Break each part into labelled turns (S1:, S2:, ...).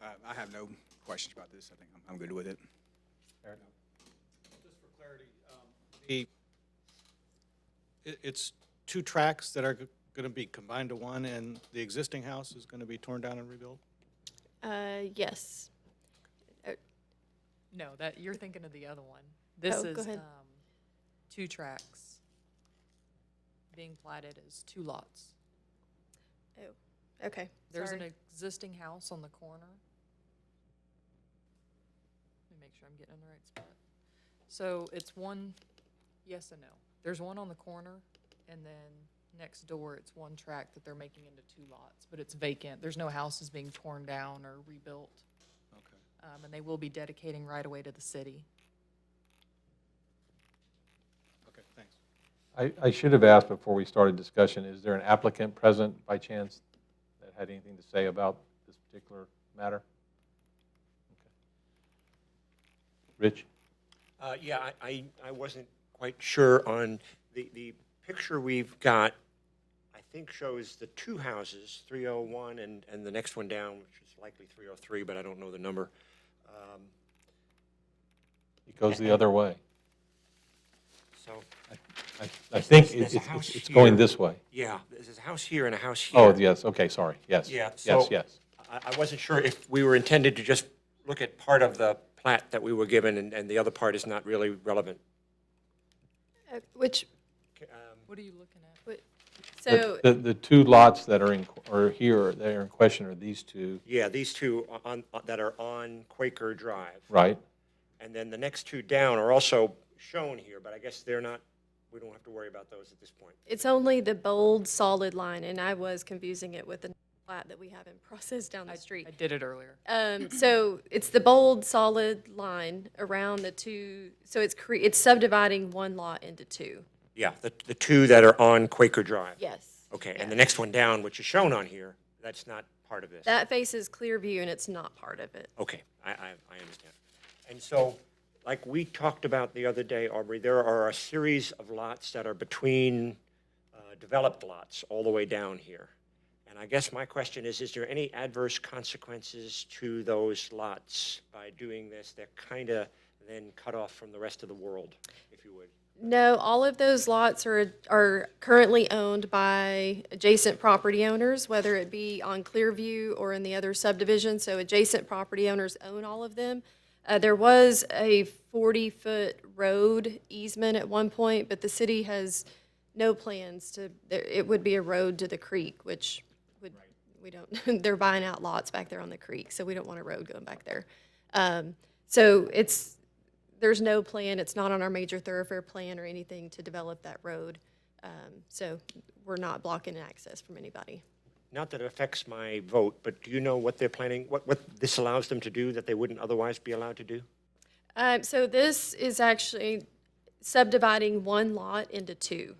S1: I- Uh, I have no questions about this. I think I'm- I'm good with it.
S2: Just for clarity, um, the, it, it's two tracks that are going to be combined to one, and the existing house is going to be torn down and rebuilt?
S3: Uh, yes.
S4: No, that, you're thinking of the other one. This
S3: go
S4: is,
S3: ahead.
S4: um, two tracks being platted as two lots.
S3: Oh, okay.
S4: There's an
S3: Sorry.
S4: existing house on the corner. Let me make sure I'm getting in the right spot. So it's one, yes and no. There's one on the corner, and then next door, it's one track that they're making into two lots, but it's vacant. There's no houses being torn down or rebuilt,
S2: Okay.
S4: um, and they will be dedicating right away to the city.
S2: Okay, thanks.
S5: I, I should have asked before we started discussion, is there an applicant present by chance that had anything to say about this particular matter? Okay. Rich?
S6: Uh, Yeah, I- I, I wasn't quite sure on, the, the picture we've got, I think shows the two houses, 301 and, and the next one down, which is likely 303, but I don't know the number. Um,
S5: It goes the other way.
S6: So,
S5: I- I think it's,
S6: There's- there's a
S5: it's-
S6: house
S5: it's going
S6: here.
S5: this way.
S6: yeah, there's a house here and a house here.
S5: Oh, yes, okay, sorry, yes.
S6: Yeah,
S5: Yes,
S6: so-
S5: yes.
S6: I, I wasn't sure if we were intended to just look at part of the plat that we were given, and, and the other part is not really relevant. Um,
S3: Uh, which,
S4: What are you looking at?
S3: whi- so,
S5: The, the- the two lots that are in, qu- are here, that are in question are these two,
S6: Yeah, these two on, on- that are on Quaker Drive.
S5: right?
S6: And then the next two down are also shown here, but I guess they're not, we don't have to worry about those at this point.
S3: it's only the bold, solid line, and I was confusing it with the plat that we have in process down the street.
S4: I did it earlier.
S3: Um, so it's the bold, solid line around the two, so it's cre, it's subdividing one lot into two.
S6: Yeah, the, the two that are on Quaker Drive.
S3: Yes.
S6: Okay, and the next one down, which is shown on here, that's not part of this.
S3: That faces Clearview and it's not part of it.
S6: Okay, I, I, I understand. And so, like we talked about the other day, Aubrey, there are a series of lots that are between uh, developed lots all the way down here. And I guess my question is, is there any adverse consequences to those lots by doing this? They're kind of then cut off from the rest of the world, if you would.
S3: No, all of those lots are, are currently owned by adjacent property owners, whether it be on Clearview or in the other subdivision. So adjacent property owners own all of them. Uh, there was a 40-foot road easement at one point, but the city has no plans to, there, it would be a road to the creek, which would, we don't, they're buying out lots back there on the creek, so we don't want a road going back there. Um, so it's, there's no plan, it's not on our major thoroughfare plan or anything to develop that road. Um, So we're not blocking access from anybody.
S6: Not that it affects my vote, but do you know what they're planning, what, what this allows them to do that they wouldn't otherwise be allowed to do?
S3: Um, So this is actually subdividing one lot into two.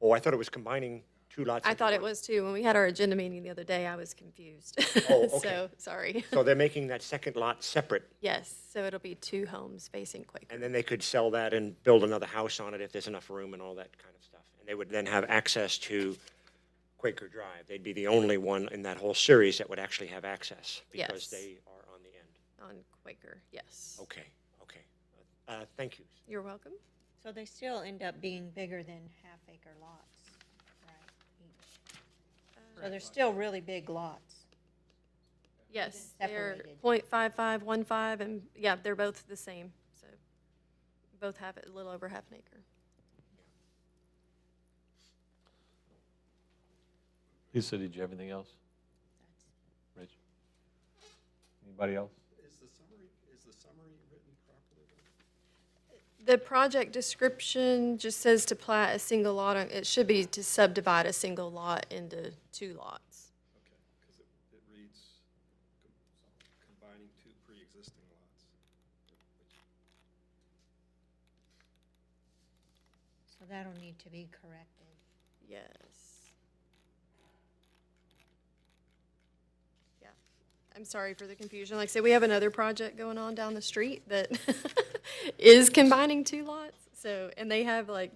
S6: Oh, I thought it was combining two lots.
S3: I
S6: into
S3: thought it
S6: one.
S3: was two. When we had our agenda meeting the other day, I was confused.
S6: Oh, okay.
S3: So, sorry.
S6: So they're making that second lot separate,
S3: Yes, so it'll be two homes facing Quaker.
S6: and then they could sell that and build another house on it if there's enough room and all that kind of stuff. And they would then have access to Quaker Drive. They'd be the only one in that whole series that would actually have access
S3: Yes.
S6: because they are on the end.
S3: On Quaker, yes.
S6: Okay, okay. Uh, Thank you.
S3: You're welcome.
S7: So they still end up being bigger than half acre lots, right? each? So they're still really big lots.
S3: Yes, they're
S7: separated.
S3: point five five one five, and, yeah, they're both the same, so. Both have a little over half an acre.
S5: Lisa, did you have anything else? Rich? Anybody else?
S3: The project description just says to plat a single lot, on- it should be to subdivide a single lot into two lots.
S7: So that'll need to be corrected.
S3: Yes. Yeah, I'm sorry for the confusion. Like I said, we have another project going on down the street that is combining two lots. So, and they have like,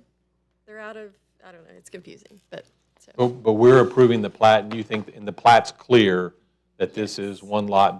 S3: they're out of, I don't know, it's confusing, but, so.
S5: But, but we're approving the plat, and you think, and the plat's clear that this is one lot